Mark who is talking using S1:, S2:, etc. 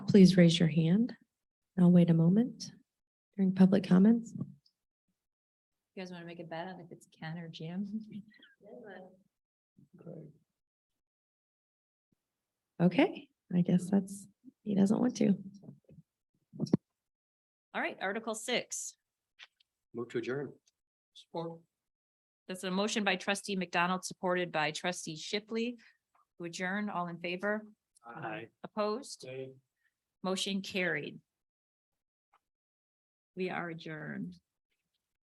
S1: please raise your hand. I'll wait a moment during public comments.
S2: You guys want to make a bet on if it's Ken or Jim?
S1: Okay, I guess that's, he doesn't want to.
S2: All right, Article six.
S3: Move to adjourn. Support.
S2: That's a motion by trustee McDonald, supported by trustee Shipley. To adjourn, all in favor?
S3: Aye.
S2: Opposed? Motion carried. We are adjourned.